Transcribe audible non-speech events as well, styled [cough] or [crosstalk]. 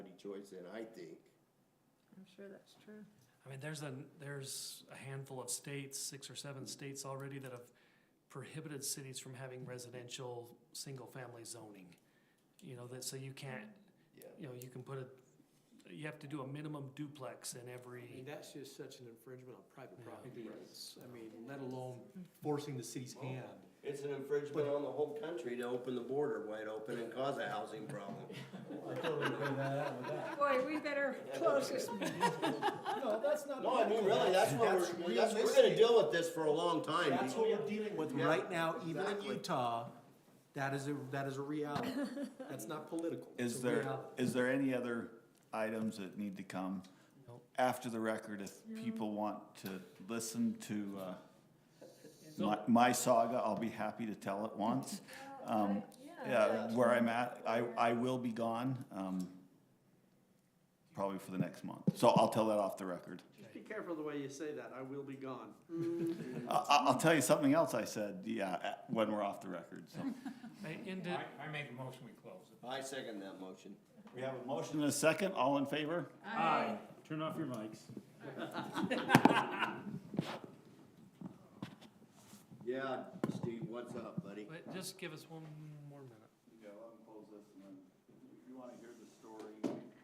choice than I think. I'm sure that's true. I mean, there's a, there's a handful of states, six or seven states already that have prohibited cities from having residential, single-family zoning. You know, that, so you can't, Yeah. you know, you can put a, you have to do a minimum duplex in I mean, every, that's just such an infringement on private Yeah. property rights. I mean, let alone forcing the city's hand. It's an infringement on the whole country to open the border wide open and cause a housing [laughs] problem. I totally figured that out with that. Boy, we better close this meeting. Oh, No, that's not. No, I mean, really, that's what we're, that's, we're gonna deal with this for a long time. That's what we're dealing with Yeah, right now, even in exactly. Utah, that is a, that is a reality. That's not political. It's Is a there, reality. is there any other items that need to come after the record if people want to listen to, uh, my, my saga, I'll be happy to tell it once. Um, yeah, where I'm at, I, I will be gone, um, probably for the next month, so I'll tell that off the record. Just be careful the way you say that, I will be gone. I, I- I'll tell you something else I said, yeah, uh, when we're off the record, so. I ended, I, I make a motion, we close it. I second that motion. We have a motion and a second, all in favor? Aye. Turn off your mics. Yeah, Steve, what's up, buddy? but just give us one more minute. Yeah, let them close this and then, if you wanna hear the story,